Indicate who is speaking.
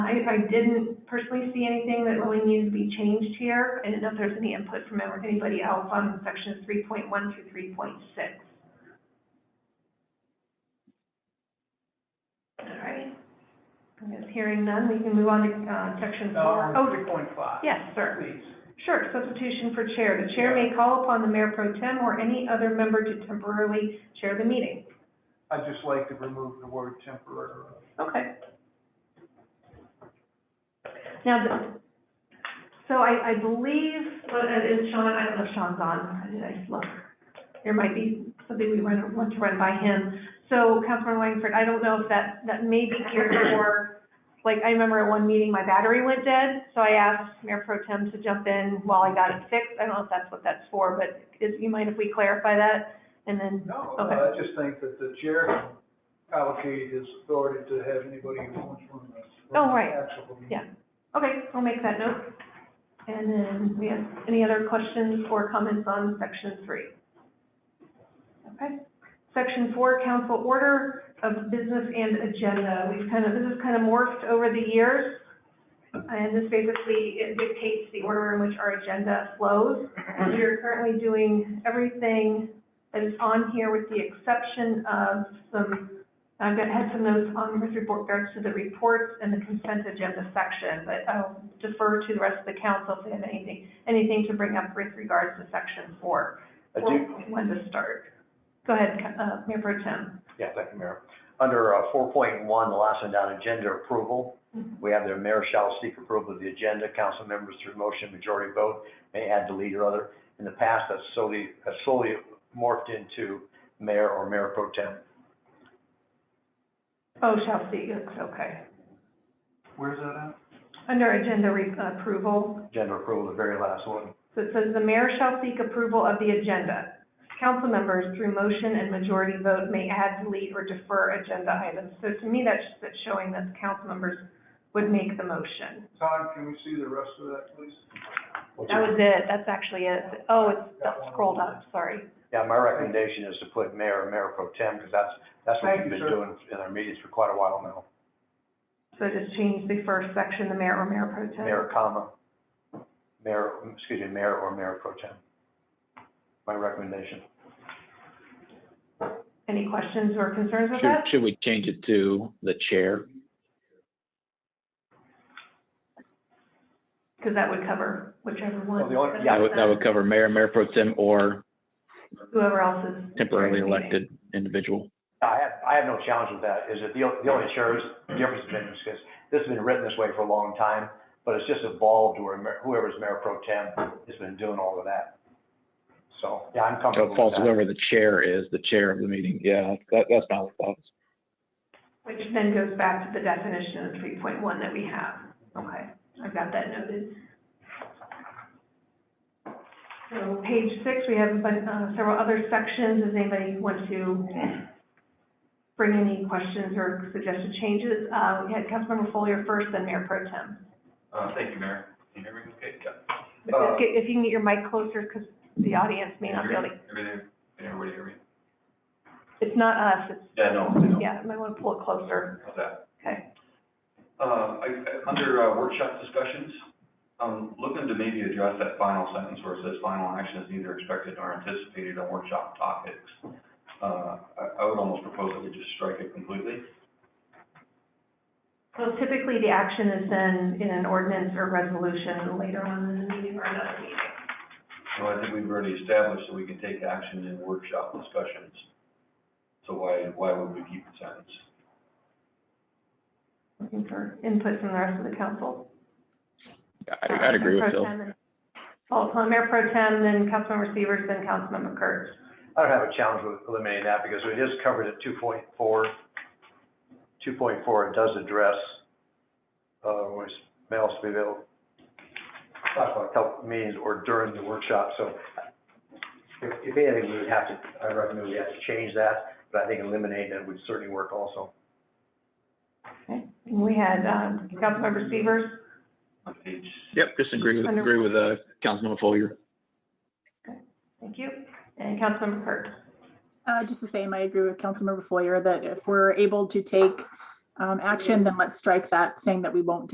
Speaker 1: I, I didn't personally see anything that really needed to be changed here. I didn't know if there's any input from anybody else on sections three point one through three point six. All right. I guess hearing none, we can move on to, uh, section four. Oh,
Speaker 2: Three point five.
Speaker 1: yes, sir.
Speaker 2: Please.
Speaker 1: Sure, substitution for chair. The chair may call upon the mayor pro tem or any other member to temporarily chair the meeting.
Speaker 2: I'd just like to remove the word temporary.
Speaker 1: Okay. Now, the- so I, I believe, well, uh, is Sean, I don't know if Sean's on, did I look? There might be something we run, want to run by him. So Councilman Langford, I don't know if that, that may be geared for, like, I remember at one meeting, my battery went dead, so I asked Mayor Pro Tem to jump in while I got it fixed. I don't know if that's what that's for, but is, you mind if we clarify that? And then,
Speaker 2: No,
Speaker 1: Okay.
Speaker 2: I just think that the chair can allocate his authority to have anybody who wants from the.
Speaker 1: Oh, right.
Speaker 2: Actual meeting.
Speaker 1: Yeah. okay, I'll make that note. And then, we have any other questions or comments on section three? Okay. Section four, council order of business and agenda. We've kind of, this has kind of morphed over the years. And this basically it dictates the order in which our agenda flows. We are currently doing everything that is on here with the exception of some, I've got, had some notes on with regards to the reports and the consent agenda section, but I'll defer to the rest of the council if they have anything, anything to bring up with regards to section four.
Speaker 3: I do,
Speaker 1: Well, When to start. Go ahead, uh, Mayor Pro Tem.
Speaker 3: yeah, thank you, Mayor. Under uh, four point one, the last one down, agenda approval, we have the mayor shall seek approval of the agenda, council members through motion, majority vote, may add, delete, or other. In the past, that's solely, that's solely morphed into mayor or mayor pro tem.
Speaker 1: Oh, shall see, it's okay.
Speaker 2: Where's that at?
Speaker 1: Under agenda re- approval,
Speaker 3: Agenda approval, the very last one.
Speaker 1: so it says the mayor shall seek approval of the agenda. Council members through motion and majority vote may add, delete, or defer agenda items. So to me, that's, that's showing that the council members would make the motion.
Speaker 2: Tom, can we see the rest of that, please?
Speaker 3: What's
Speaker 1: That
Speaker 3: your-
Speaker 1: was it, that's actually it. Oh, it's up- scrolled up, sorry.
Speaker 3: Yeah, my recommendation is to put mayor or mayor pro tem, because that's, that's what
Speaker 2: Thank
Speaker 3: we've
Speaker 2: you,
Speaker 3: been
Speaker 2: sir.
Speaker 3: doing in our meetings for quite a while now.
Speaker 1: So just change the first section, the mayor or mayor pro tem.
Speaker 3: Mayor, comma, mayor, excuse me, mayor or mayor pro tem. My recommendation.
Speaker 1: Any questions or concerns with
Speaker 4: Should,
Speaker 1: that?
Speaker 4: should we change it to the chair?
Speaker 1: Because that would cover whichever one.
Speaker 3: Well, the only- yeah,
Speaker 4: That would, that would cover mayor, mayor pro tem, or
Speaker 1: Whoever else is.
Speaker 4: temporarily elected individual.
Speaker 3: I have, I have no challenge with that, is that the, o- the only insurance difference has been, because this has been written this way for a long time, but it's just evolved where mer- whoever's mayor pro tem has been doing all of that. So, yeah, I'm
Speaker 4: So it
Speaker 3: comfortable
Speaker 4: falls
Speaker 3: with that.
Speaker 4: whoever the chair is, the chair of the meeting. Yeah, that, that's my thoughts.
Speaker 1: Which then goes back to the definition of three point one that we have. Okay, I've got that noted. So page six, we have a bun- uh, several other sections. Does anybody want to bring any questions or suggested changes? Uh, we had Councilmember Follier first, then Mayor Pro Tem.
Speaker 5: Uh, thank you, Mayor. Can you hear me? Okay, yeah. Uh,
Speaker 1: But just get- If you can get your mic closer, because the audience may not be able to,
Speaker 5: Everything, can everybody hear me?
Speaker 1: it's not us, it's,
Speaker 5: Yeah, no, I know.
Speaker 1: yeah, you might want to pull it closer.
Speaker 5: How's that?
Speaker 1: Okay.
Speaker 5: Uh, I, I, under uh, workshop discussions, um, looking to maybe address that final sentence where it says final action is neither expected nor anticipated on workshop topics. Uh, I, I would almost propose that we just strike it completely.
Speaker 1: So typically, the action is then in an ordinance or resolution later on in the meeting or another meeting.
Speaker 5: So I think we've already established that we can take action in workshop discussions. So why, why would we keep the sentence?
Speaker 1: Looking for input from the rest of the council.
Speaker 4: I, I'd agree with
Speaker 1: Mayor Pro
Speaker 4: Phil.
Speaker 1: Tem and- Well, upon Mayor Pro Tem, then Councilmember Severs, then Councilmember Kurtz.
Speaker 3: I don't have a challenge with eliminating that, because it is covered at two point four. Two point four, it does address, uh, when it's mail to be available. Talks about help meetings or during the workshop, so if, if anything, we would have to, I recommend we have to change that, but I think eliminating it would certainly work also.
Speaker 1: And We had, uh, Councilmember Severs,
Speaker 5: On page
Speaker 4: Yep, just agree with,
Speaker 1: Under-
Speaker 4: agree with, uh, Councilmember Follier.
Speaker 1: thank you, and Councilmember Kurtz.
Speaker 6: Uh, just the same, I agree with Councilmember Foyer that if we're able to take um, action, then let's strike that, saying that we won't